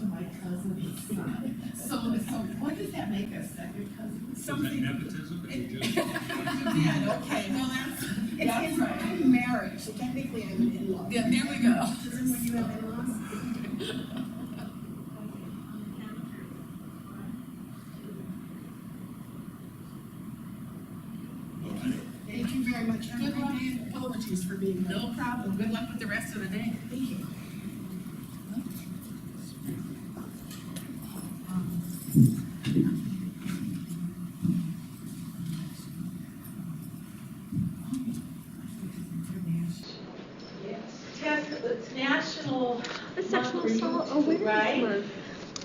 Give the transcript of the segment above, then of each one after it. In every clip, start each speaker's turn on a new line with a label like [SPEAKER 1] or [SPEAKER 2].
[SPEAKER 1] thousand eight. So, so what does that make us, second cousin?
[SPEAKER 2] Is that
[SPEAKER 1] Something.
[SPEAKER 2] nepotism? Is it just-
[SPEAKER 1] Yeah, okay, well, that's,
[SPEAKER 3] It's,
[SPEAKER 1] that's
[SPEAKER 3] it's
[SPEAKER 1] right.
[SPEAKER 3] I'm married, so technically I'm an in-law.
[SPEAKER 1] Yeah, there we go.
[SPEAKER 3] Doesn't when you have in-laws?
[SPEAKER 2] All right.
[SPEAKER 3] Thank you very much.
[SPEAKER 1] Good luck.
[SPEAKER 3] And Apologies for being late.
[SPEAKER 1] No problem, good luck with the rest of the day.
[SPEAKER 3] Thank you.
[SPEAKER 4] Tess, it's National.
[SPEAKER 5] The sexual
[SPEAKER 4] Month for
[SPEAKER 5] assault
[SPEAKER 4] Youth,
[SPEAKER 5] awareness
[SPEAKER 4] right?
[SPEAKER 5] month.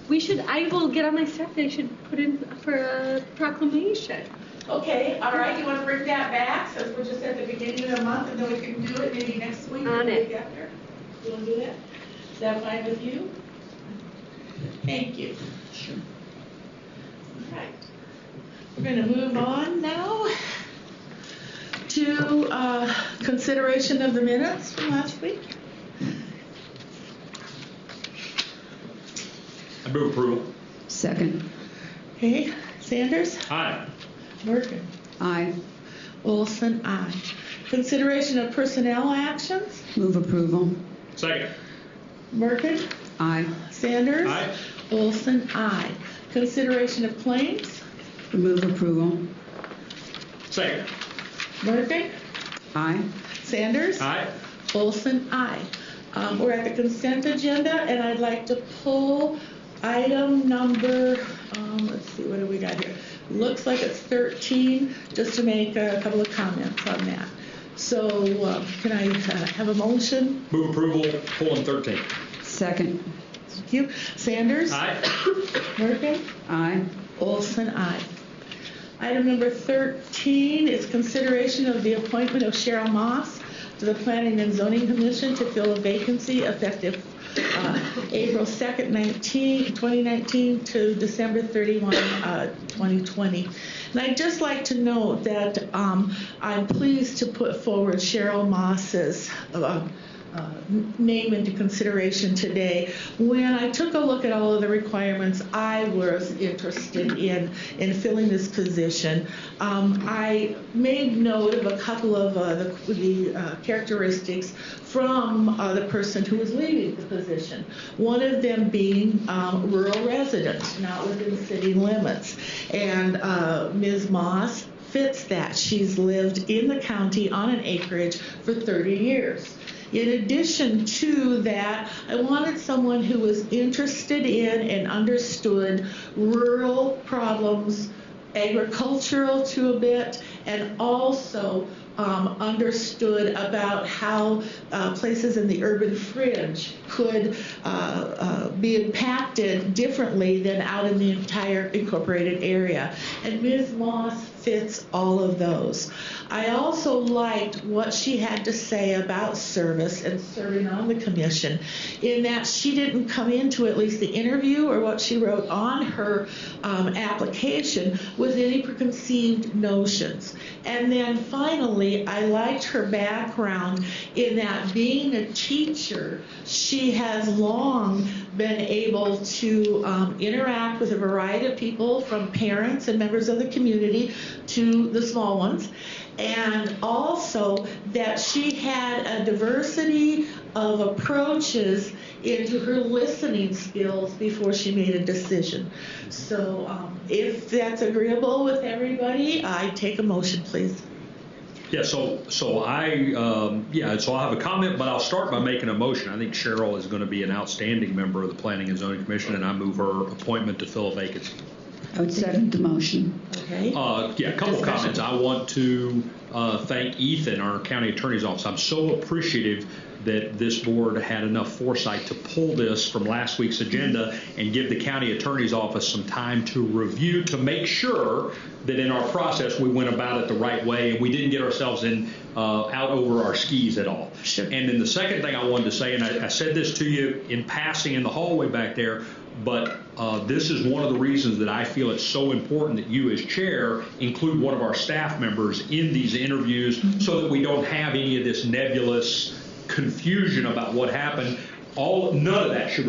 [SPEAKER 5] We should. I will get on my staff. They should put in for a proclamation.
[SPEAKER 4] Okay, all right, you want to bring that back, since we're just at the beginning of the month, and then we can do it maybe next week or
[SPEAKER 5] On
[SPEAKER 4] the
[SPEAKER 5] it.
[SPEAKER 4] week after? You want to do that? Is that fine with you? Thank you. All right. We're going to move on now to uh, consideration of the minutes from last week.
[SPEAKER 6] I move approval.
[SPEAKER 7] Second,
[SPEAKER 4] Okay, Sanders,
[SPEAKER 6] Aye.
[SPEAKER 4] Merkin,
[SPEAKER 7] aye.
[SPEAKER 4] Olson, aye. Consideration of personnel actions,
[SPEAKER 7] Move approval,
[SPEAKER 6] Second.
[SPEAKER 4] Merkin,
[SPEAKER 7] aye.
[SPEAKER 4] Sanders.
[SPEAKER 6] Aye.
[SPEAKER 4] Olson, aye. Consideration of claims,
[SPEAKER 7] Move approval,
[SPEAKER 6] Second.
[SPEAKER 4] Merkin,
[SPEAKER 7] aye.
[SPEAKER 4] Sanders.
[SPEAKER 6] Aye.
[SPEAKER 4] Olson, aye. Um, We're at the consent agenda, and I'd like to pull item number, um, let's see, what do we got here? Looks like it's 13, just to make a couple of comments on that. So um, can I uh, have a motion?
[SPEAKER 6] Move approval, colon 13.
[SPEAKER 7] Second,
[SPEAKER 4] Thank you. Sanders?
[SPEAKER 6] Aye.
[SPEAKER 4] Merkin?
[SPEAKER 7] aye.
[SPEAKER 4] Olson, aye. Item number 13 is consideration of the appointment of Cheryl Moss to the Planning and Zoning Commission to fill a vacancy effective uh, April 2nd, 19, 2019 to December 31, uh, 2020. And I'd just like to note that um, I'm pleased to put forward Cheryl Moss's uh, uh, name into consideration today. When I took a look at all of the requirements, I was interested in, in filling this position. Um, I made note of a couple of uh, the, the uh, characteristics from uh, the person who was leaving the position. One of them being um, rural residents, not within city limits. And uh, Ms. Moss fits that. She's lived in the county on an acreage for 30 years. In addition to that, I wanted someone who was interested in and understood rural problems, agricultural to a bit, and also um, understood about how uh, places in the urban fringe could uh, uh, be impacted differently than out in the entire incorporated area. And Ms. Moss fits all of those. I also liked what she had to say about service and serving on the commission, in that she didn't come into at least the interview or what she wrote on her um, application with any preconceived notions. And then finally, I liked her background in that being a teacher, she has long been able to um, interact with a variety of people, from parents and members of the community to the small ones, and also that she had a diversity of approaches into her listening skills before she made a decision. So, um, if that's agreeable with everybody, I take a motion, please.
[SPEAKER 6] Yeah, so, so I, um, yeah, so I'll have a comment, but I'll start by making a motion. I think Cheryl is going to be an outstanding member of the Planning and Zoning Commission, and I move her appointment to fill a vacancy.
[SPEAKER 7] I would second the motion.
[SPEAKER 4] Okay.
[SPEAKER 6] Uh, yeah, a couple of
[SPEAKER 4] Discussion.
[SPEAKER 6] comments. I want to uh, thank Ethan, our county attorney's office. I'm so appreciative that this board had enough foresight to pull this from last week's agenda and give the county attorney's office some time to review to make sure that in our process we went about it the right way and we didn't get ourselves in uh, out over our skis at all.
[SPEAKER 4] Sure.
[SPEAKER 6] And then the second thing I wanted to say, and I, I said this to you in passing in the hallway back there, but uh, this is one of the reasons that I feel it's so important that you, as chair, include one of our staff members in these interviews so that we don't have any of this nebulous confusion about what happened. All none of that should